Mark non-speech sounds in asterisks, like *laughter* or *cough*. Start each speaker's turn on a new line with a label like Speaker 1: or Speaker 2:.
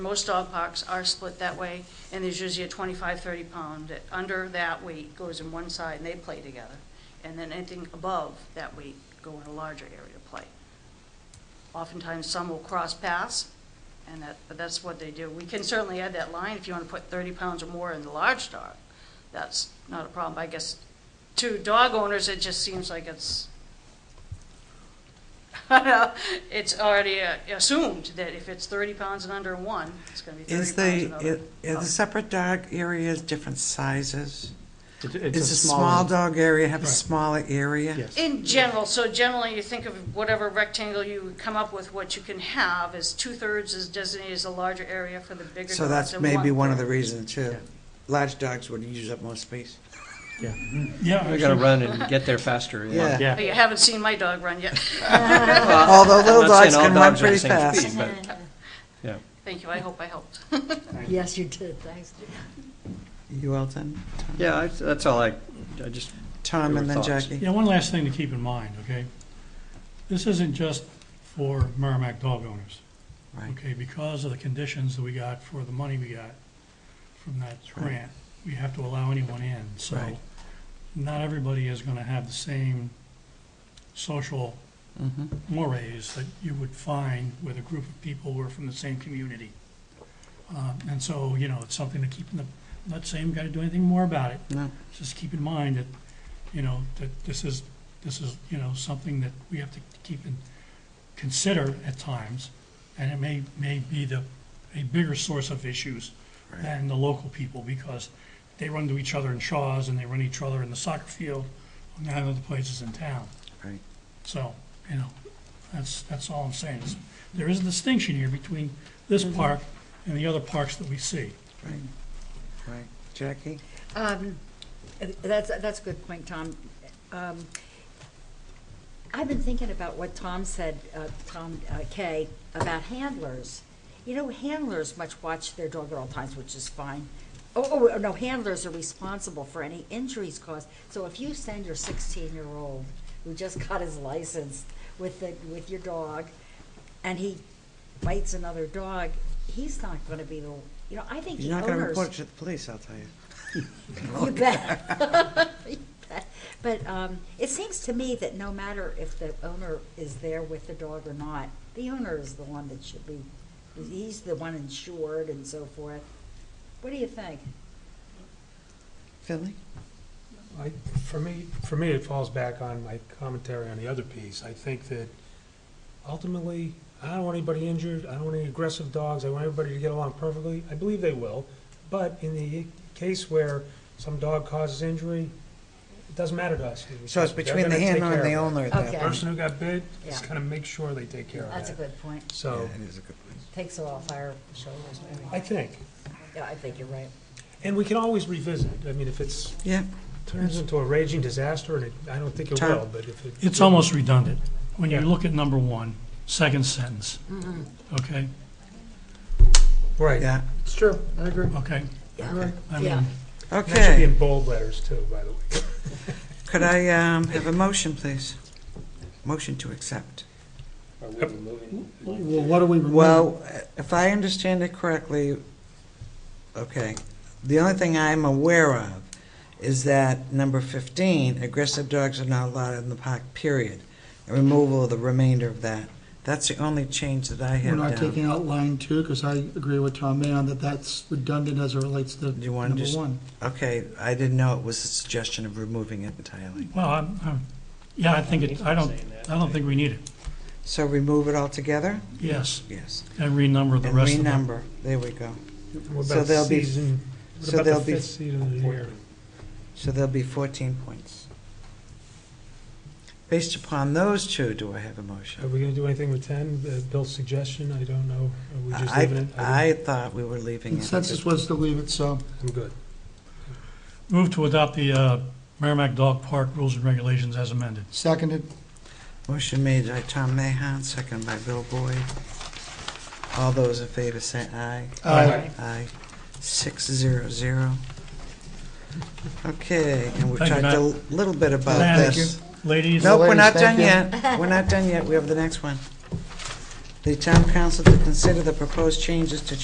Speaker 1: Most dog parks are split that way, and there's usually a 25, 30 pound. that Under that weight goes in one side and they play together. And then anything above that weight go in a larger area to play. Oftentimes, some will cross paths, and that, but that's what they do. We can certainly add that line if you want to put 30 pounds or more in the large dog. That's not a problem. I guess to dog owners, it just seems like it's, *laughs* it's already uh, assumed that if it's 30 pounds and under one, it's going to be 30
Speaker 2: Is
Speaker 1: pounds
Speaker 2: the,
Speaker 1: and
Speaker 2: i-
Speaker 1: over.
Speaker 2: are the separate dog areas different sizes?
Speaker 3: It's
Speaker 2: Is the small dog area have a
Speaker 3: Right.
Speaker 2: smaller area?
Speaker 3: Yes.
Speaker 1: Oh. In general, so generally, you think of whatever rectangle you come up with, what you can have is two-thirds is designated as a larger area for the bigger dogs.
Speaker 2: So that's
Speaker 1: and
Speaker 2: maybe one of the
Speaker 1: one-third.
Speaker 2: reasons too.
Speaker 3: Yeah.
Speaker 2: Large dogs would use up most space.
Speaker 3: Yeah.
Speaker 4: Yeah.
Speaker 5: We gotta run and get there faster.
Speaker 2: Yeah.
Speaker 3: Yeah.
Speaker 1: You haven't seen my dog run yet.
Speaker 2: Although little
Speaker 5: I'm not
Speaker 2: dogs
Speaker 5: saying all
Speaker 2: can run
Speaker 5: dogs are the
Speaker 2: pretty
Speaker 5: same
Speaker 2: fast.
Speaker 5: speed, but- Yeah.
Speaker 1: Thank you, I hope I helped.
Speaker 6: Yes, you did, thanks.
Speaker 2: You all done? Tom?
Speaker 5: Yeah, I- that's all I, I just,
Speaker 2: Tom
Speaker 5: Your
Speaker 2: and then
Speaker 5: thoughts.
Speaker 2: Jackie?
Speaker 4: Yeah.
Speaker 6: Yeah, one last thing to keep in mind, okay? This isn't just for Merrimack dog owners,
Speaker 2: Right.
Speaker 6: okay? Because of the conditions that we got for the money we got from that
Speaker 2: right.
Speaker 6: grant, we have to allow anyone in, so
Speaker 2: Right.
Speaker 6: not everybody is gonna have the same social
Speaker 2: Mhm.
Speaker 6: mores that you would find with a group of people who are from the same community. Um, and so, you know, it's something to keep in the, I'm not saying we gotta do anything more about it,
Speaker 2: No,
Speaker 6: just keep in mind that, you know, that this is, this is, you know, something that we have to keep and consider at times, and it may, may be the, a bigger source of issues
Speaker 2: Right.
Speaker 6: than the local people, because they run to each other in Shaw's, and they run each other in the soccer field, and nine other places in town.
Speaker 2: right.
Speaker 6: So, you know, that's, that's all I'm saying, is there is a distinction here between this
Speaker 3: Mm-hmm.
Speaker 6: park and the other parks that we see.
Speaker 2: Right. Jackie?
Speaker 7: Um, That's, that's a good point, Tom. Um, I've been thinking about what Tom said, uh, Tom uh, Kay, about handlers. You know, handlers much watch their dog at all times, which is fine. Oh, oh, no, handlers are responsible for any injuries caused. So if you send your 16-year-old, who just got his license with the, with your dog, and he bites another dog, he's not going to be the, you know, I think the
Speaker 2: You're not gonna
Speaker 7: owners.
Speaker 2: report it to the police, I'll tell you.
Speaker 7: You bet. *laughs* You bet. But um, it seems to me that no matter if the owner is there with the dog or not, the owner is the one that should be, he's the one insured and so forth. What do you think?
Speaker 2: Philly?
Speaker 3: I, for me, for me, it falls back on my commentary on the other piece. I think that ultimately, I don't want anybody injured, I don't want any aggressive dogs, I want everybody to get along perfectly. I believe they will, but in the case where some dog causes injury, it doesn't matter to us.
Speaker 2: So it's
Speaker 3: They're
Speaker 2: between the
Speaker 3: gonna take
Speaker 2: handler and the
Speaker 3: care of it.
Speaker 2: owner at that
Speaker 7: Okay.
Speaker 3: The
Speaker 2: point.
Speaker 3: Person who got bit is
Speaker 7: Yeah.
Speaker 3: gonna make sure they take care of that.
Speaker 7: That's a good point.
Speaker 3: So,
Speaker 2: Yeah, it is a good point.
Speaker 7: Takes it off our shoulders,
Speaker 3: I
Speaker 7: maybe.
Speaker 3: think,
Speaker 7: Yeah, I think you're right.
Speaker 3: and we can always revisit. I mean, if it's,
Speaker 2: Yeah,
Speaker 3: turns into a raging disaster, and it, I don't think it
Speaker 2: Tom?
Speaker 3: will, but if it.
Speaker 6: It's almost redundant. When you
Speaker 3: Yeah.
Speaker 6: look at number one, second sentence, okay,
Speaker 3: Right.
Speaker 2: yeah.
Speaker 3: It's true, I agree.
Speaker 6: okay?
Speaker 3: Right.
Speaker 6: I
Speaker 7: Yeah.
Speaker 6: mean,
Speaker 3: And That should be
Speaker 2: Okay.
Speaker 3: in bold letters too, by the way.
Speaker 2: Could I um, have a motion, please? Motion to accept.
Speaker 3: Well, what do we?
Speaker 2: Well, if I understand it correctly, okay, the only thing I'm aware of is that number 15, aggressive dogs are not allowed in the park, period. And Removal of the remainder of that. That's the only change that I
Speaker 8: We're
Speaker 2: have
Speaker 8: not
Speaker 2: down.
Speaker 8: taking out line two, because I agree with Tom Mayon that that's redundant as it relates to
Speaker 2: you wanna
Speaker 8: number
Speaker 2: just-
Speaker 8: one.
Speaker 2: Okay, I didn't know it was a suggestion of removing it entirely.
Speaker 6: well, I'm, I'm, yeah, I think it, I don't, I don't think we need it,
Speaker 2: So remove it altogether?
Speaker 6: yes,
Speaker 2: Yes.
Speaker 6: and renumber the
Speaker 2: And
Speaker 6: rest of them.
Speaker 2: renumber, there we go.
Speaker 3: What
Speaker 2: so
Speaker 3: about
Speaker 2: there'll be-
Speaker 3: season,
Speaker 2: so
Speaker 3: what
Speaker 2: there'll
Speaker 3: about the
Speaker 2: be-
Speaker 3: fifth season of the year?
Speaker 2: So there'll be 14 points. Based upon those two, do I have a
Speaker 3: Are
Speaker 2: motion?
Speaker 3: we gonna do anything with ten, Uh, Bill's suggestion, I don't know, are we just
Speaker 2: I,
Speaker 3: leaving it?
Speaker 2: I
Speaker 3: think-
Speaker 2: thought we were leaving it. at
Speaker 8: Consensus
Speaker 2: fif-
Speaker 8: was to leave it, so
Speaker 3: I'm good.
Speaker 6: Move to adopt the uh, Merrimack Dog Park Rules and Regulations as amended.
Speaker 8: seconded.
Speaker 2: Motion made by Tom Mahon, seconded by Bill Boyd. All those in favor say aye.
Speaker 8: Aye.
Speaker 2: Aye. Six zero zero. Okay, and we've
Speaker 6: Thank you,
Speaker 2: talked a little bit about
Speaker 6: Thank
Speaker 2: this.
Speaker 6: Ladies?
Speaker 2: Nope, we're not
Speaker 8: Ladies,
Speaker 2: done
Speaker 8: thank
Speaker 2: yet. We're not done yet. We have the next one. The town council to consider the proposed changes to